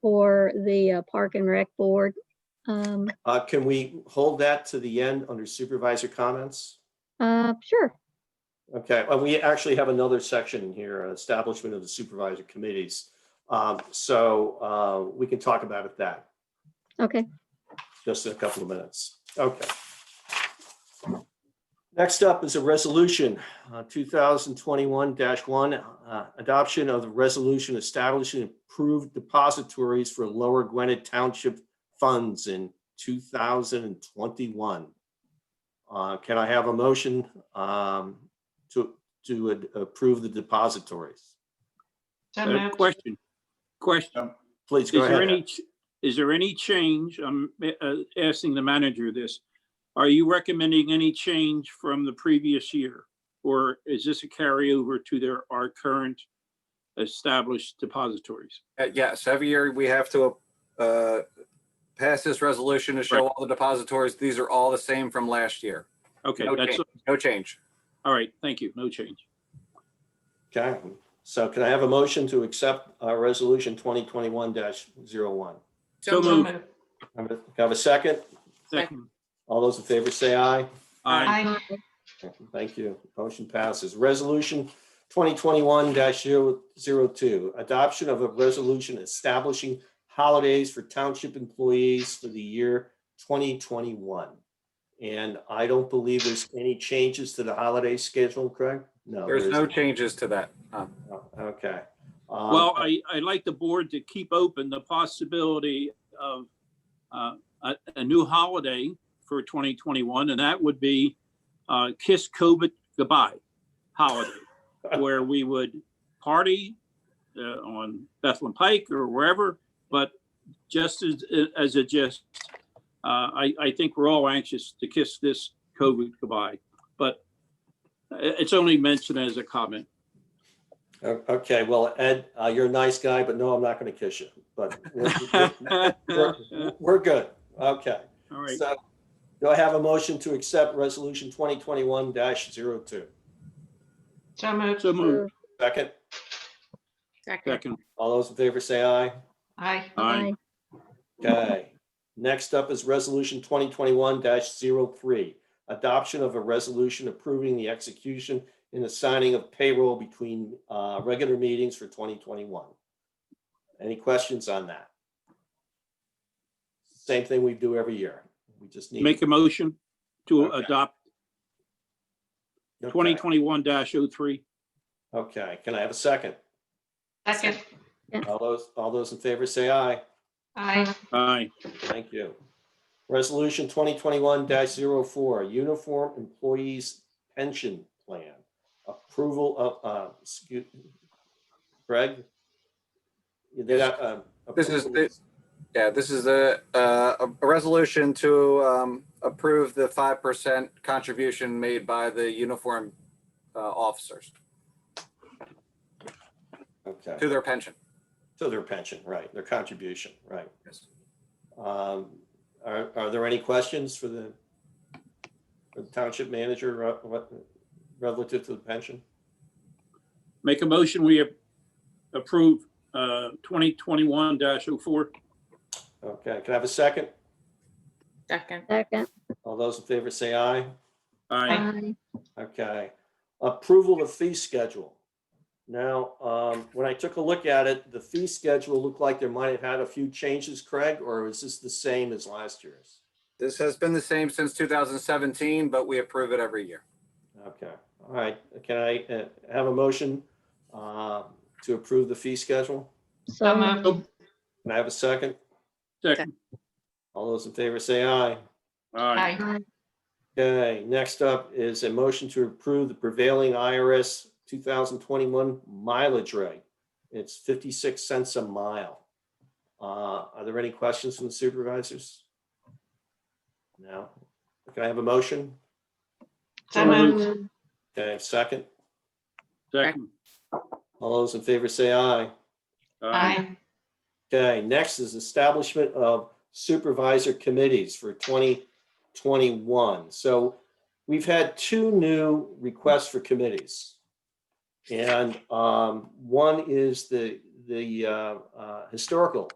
for the uh, Park and Rec Board. Um, Uh, Can we hold that to the end under supervisor comments? uh, Sure, Okay, well, we actually have another section in here, establishment of the supervisor committees. Um, So uh, we can talk about it that, okay. just in a couple of minutes. Okay. Next up is a resolution, uh, 2021-1, uh, adoption of the resolution establishing approved depositories for Lower Gwinnett Township funds in 2021. Uh, Can I have a motion um, to, to ad- approve the depositories? So Uh, moved. Question, question. Please Is Um, go there ahead. any, ch- is there any change? I'm uh, asking the manager this. Are you recommending any change from the previous year? Or is this a carryover to their, our current established depositories? Uh, Yes, every year we have to uh, pass this resolution to show all the depositories. These are all the same from last year. Okay, No that's, change, no change. all right, thank you, no change. Okay, so can I have a motion to accept uh, Resolution 2021-01? So moved. Have a- Have a second? Second. All those in favor say aye. Aye. Aye. Thank you. Motion passes. Resolution 2021-002, adoption of a resolution establishing holidays for township employees for the year 2021. And I don't believe there's any changes to the holiday schedule, Craig? No. There's there no isn't. changes to that. Uh, No, Okay. Um, Well, I, I'd like the board to keep open the possibility of uh, a, a new holiday for 2021, and that would be uh, Kiss COVID Goodbye holiday, where we would party uh, on Bethlehem Pike or wherever, but just as, as a just, uh, I, I think we're all anxious to kiss this COVID goodbye, but it- it's only mentioned as a comment. o- Okay, well, Ed, uh, you're a nice guy, but no, I'm not going to kiss you, but we're- we're- All we're- we're good. Okay. right, So do I have a motion to accept resolution twenty twenty-one 2 So moved. so moved, Second, Second. second, all those in favor say aye. Aye. aye, Okay. Next up is resolution twenty twenty-one 3 Adoption of a resolution approving the execution and the signing of payroll between uh, regular meetings for twenty twenty-one. Any questions on that? Same thing we do every year. We just need. make a motion to Okay. adopt Okay. twenty twenty-one 3 Okay, can I have a second? Second. All those, all those in favor say aye. Aye. aye, Thank you. Resolution 2021-04, Uniform Employees Pension Plan. Approval of, uh, excuse, Greg? You did, uh, uh, This is the- Yeah, this is a, uh, a resolution to um, approve the 5% contribution made by the uniform uh, officers Okay, to their pension. to their pension, right, their contribution, right. Yes. Um, Are, are there any questions for the for the township manager re- what- relative to the pension? make a motion, we ap- approve uh twenty twenty-one 4 Okay, can I have a second? Second. Second, All those in favor say aye. aye, aye, Okay, approval of fee schedule. Now, um, when I took a look at it, the fee schedule looked like there might have had a few changes, Craig, or is this the same as last year's? This has been the same since 2017, but we approve it every year. Okay, all right, can I uh, have a motion uh, to approve the fee schedule? So so moved, moved. Can I have a second? second, All those in favor say aye. Aye. aye, aye, Okay, next up is a motion to approve the prevailing IRS 2021 mileage rate. It's 56 cents a mile. Uh, Are there any questions from the supervisors? No? Can I have a motion? So moved. Can I have a second? second, All those in favor say aye. aye, Aye. Okay, next is establishment of supervisor committees for 2021. So we've had two new requests for committees. And um, one is the, the uh, uh, Historical